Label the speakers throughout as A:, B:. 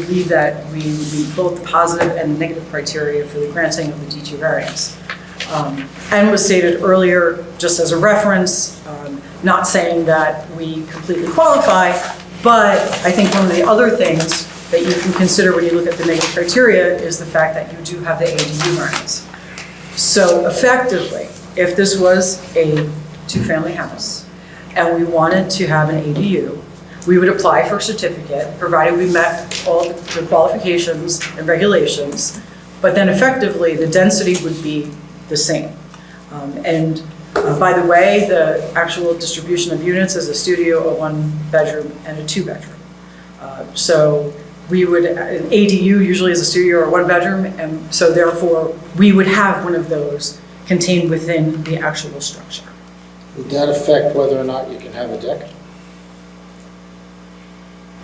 A: believe that we would meet both the positive and the negative criteria for the granting of the D2 variance. Um, And was stated earlier, just as a reference, um, not saying that we completely qualify, but I think one of the other things that you can consider when you look at the negative criteria is the fact that you do have the ADU variance. So effectively, if this was a two-family house and we wanted to have an ADU, we would apply for a certificate, provided we met all the qualifications and regulations. But then effectively, the density would be the same. Um, And uh, by the way, the actual distribution of units is a studio, a one-bedroom, and a two-bedroom. Uh, So we would, an ADU usually is a studio or one bedroom, and so therefore, we would have one of those contained within the actual structure.
B: Would that affect whether or not you can have a deck?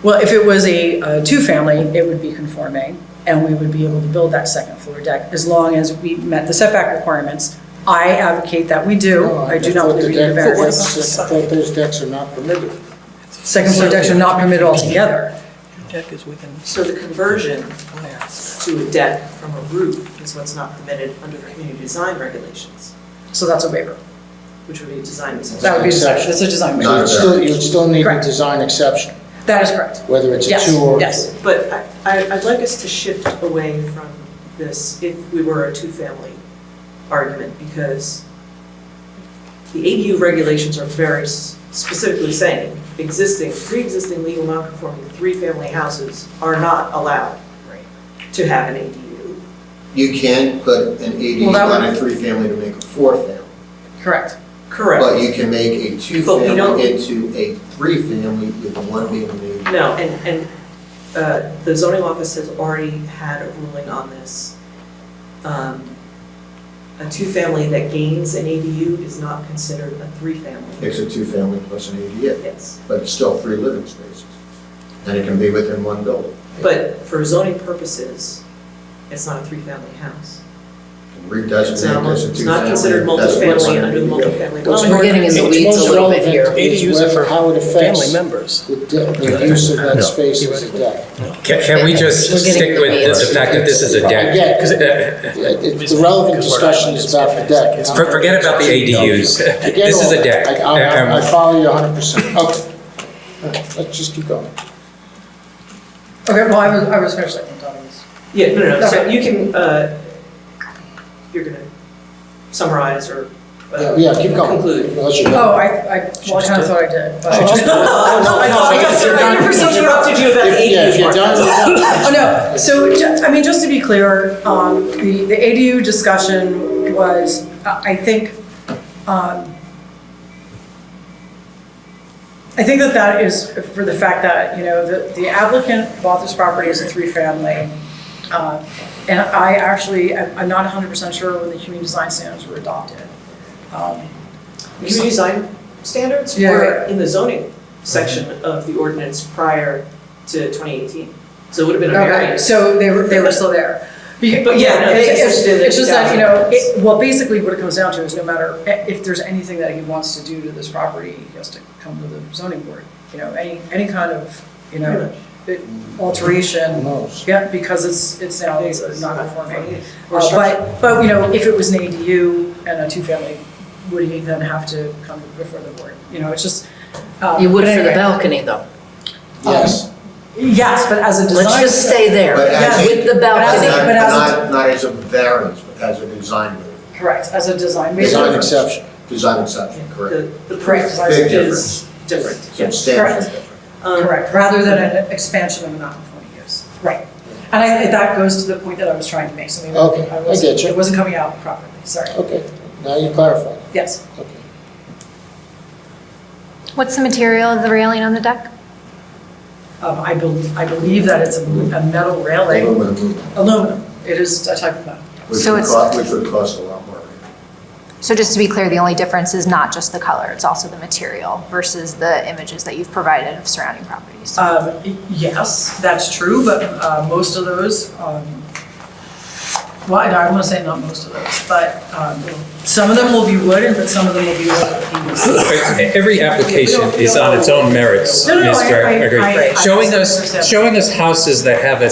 A: Well, if it was a uh, two-family, it would be conforming, and we would be able to build that second floor deck as long as we met the setback requirements. I advocate that we do.
B: Oh,
A: I do not
B: thought
A: believe
B: the
A: we need a
B: deck-
A: variance.
B: I thought those decks are not permitted.
A: Second floor decks are not permitted altogether.
C: Deck is within.
D: So the conversion to a deck from a roof is what's not permitted under community design regulations,
A: So that's a waiver.
D: which would be a design decision.
A: That would be, that's a design
B: So
A: waiver.
B: you'd still, you'd still need a
A: Correct.
B: design exception,
A: That is correct.
B: whether it's a
A: Yes,
B: two or.
A: yes.
D: But I, I- I'd like us to shift away from this, if we were a two-family argument, because the ADU regulations are very s- specifically saying, existing, pre-existing legal non-conforming three-family houses are not allowed to have an ADU.
E: You can put an ADU
A: Well, that
E: on
A: would-
E: a three-family to make a four-family,
A: Correct.
D: Correct.
E: but you can make a
D: But we don't-
E: two-family into a three-family with one being an ADU.
D: No, and, and uh, the zoning office has already had a ruling on this. Um, A two-family that gains an ADU is not considered a three-family.
E: It's a two-family plus an ADU,
D: Yes,
E: but it's still three living spaces. And it can be within one building.
D: but for zoning purposes, it's not a three-family house. It's
E: Redesignate
D: not,
E: this a
D: it's not
E: two-family.
D: considered
E: that's what's
D: multifamily
E: on
D: under the
E: ADU.
D: multifamily
B: What's
D: dwelling.
B: more-
F: We're getting in the
B: what's
F: weeds a
B: most
F: little bit
B: relevant
F: here.
B: is
C: ADUs are
B: whether-
C: for
B: How it
C: Family
B: affects
C: members.
B: the, de- the use of that space as a deck.
G: Can, can we just
F: We're getting
G: stick with the- the fact that this is a deck?
B: Yeah, 'cause
G: Uh,
B: It- it's- The relevant discussion is about the deck. not-
G: for- Forget about the ADUs.
B: Forget
G: This is
B: all
G: a deck.
B: that. I- I, I
G: Um,
B: follow you hundred percent. Okay. All right, Let's just keep going.
A: Okay, well, I was, I was finished, I think, on this.
D: Yeah, no, no, no, so you can, uh, you're gonna summarize or uh,
B: Yeah, Yeah, keep going.
D: conclude.
B: Unless you-
A: Oh, I, I, well, I kind of thought I did. but-
D: Because
A: you're done.
D: I interrupted you about the ADU.
B: Yeah, if you're done, you're done.
A: Oh, no, so, ju- I mean, just to be clear, um, the, the ADU discussion was, uh, I I think, um, I think that that is for the fact that, you know, the the applicant bought this property as a three-family. uh, And I actually, I'm I'm not hundred percent sure when the community design standards were adopted. Um,
D: Community design standards
A: Yeah,
D: were
A: right.
D: in the zoning section of the ordinance prior to 2018. So it would have been a
A: Okay,
D: variance.
A: so they were, they were still there. Be-
D: But yeah, no, they
A: it's- it's-
D: existed in the
A: It's just that, you know,
D: 2000s.
A: it, well, basically what it comes down to is no matter, i- if there's anything that he wants to do to this property, he has to come to the zoning board. You know, any, any kind of, you know, it-
B: Who
A: alteration,
B: knows?
A: yeah, because it's, it's now, it's non-conforming.
D: Or
A: Uh,
D: structure.
A: But, but, you know, if it was an ADU and a two-family, would he then have to come before the board? You know, it's just. um,
F: You would
A: but
F: for the
A: anyway.
F: balcony, though.
B: Yes.
A: Yes, but as a design.
F: Let's just stay there
E: But as
F: with the
A: But as a-
F: balcony.
E: Not,
A: but as a-
E: not, not as a variance, but as a design, waiver.
A: Correct, as a design. basically.
B: Design exception.
E: design exception, correct.
D: The, the
A: Correct.
D: proof
E: Big
D: is different, yes.
E: Substantial
A: Correct.
E: difference.
D: Um,
A: Correct, rather than an expansion of a non-conforming use. Right. And I, that goes to the point that I was trying to make, so maybe
B: Okay, I
A: I wasn't,
B: get you. Oh.
A: it wasn't coming out properly, sorry.
B: Okay, now you clarified. it.
A: Yes,
B: Okay.
H: What's the material of the railing on the deck?
A: um, I believe, I believe that it's a a metal railing,
E: Aluminum,
A: aluminum, it is a type of metal.
E: which
H: So
E: would
H: it's-
E: cost, which would cost a lot more.
H: So just to be clear, the only difference is not just the color, it's also the material versus the images that you've provided of surrounding properties.
A: Um, y- yes, that's true, but, uh, most of those, um, well, I don't want to say not most of those, but, um, some of them will be wooden, but some of them will be wood.
G: Every application is on its own merits,
A: No, no,
G: Mr.
A: I- I-
G: Agri.
A: I- I-
G: Showing
A: I-
G: us, showing us houses that have a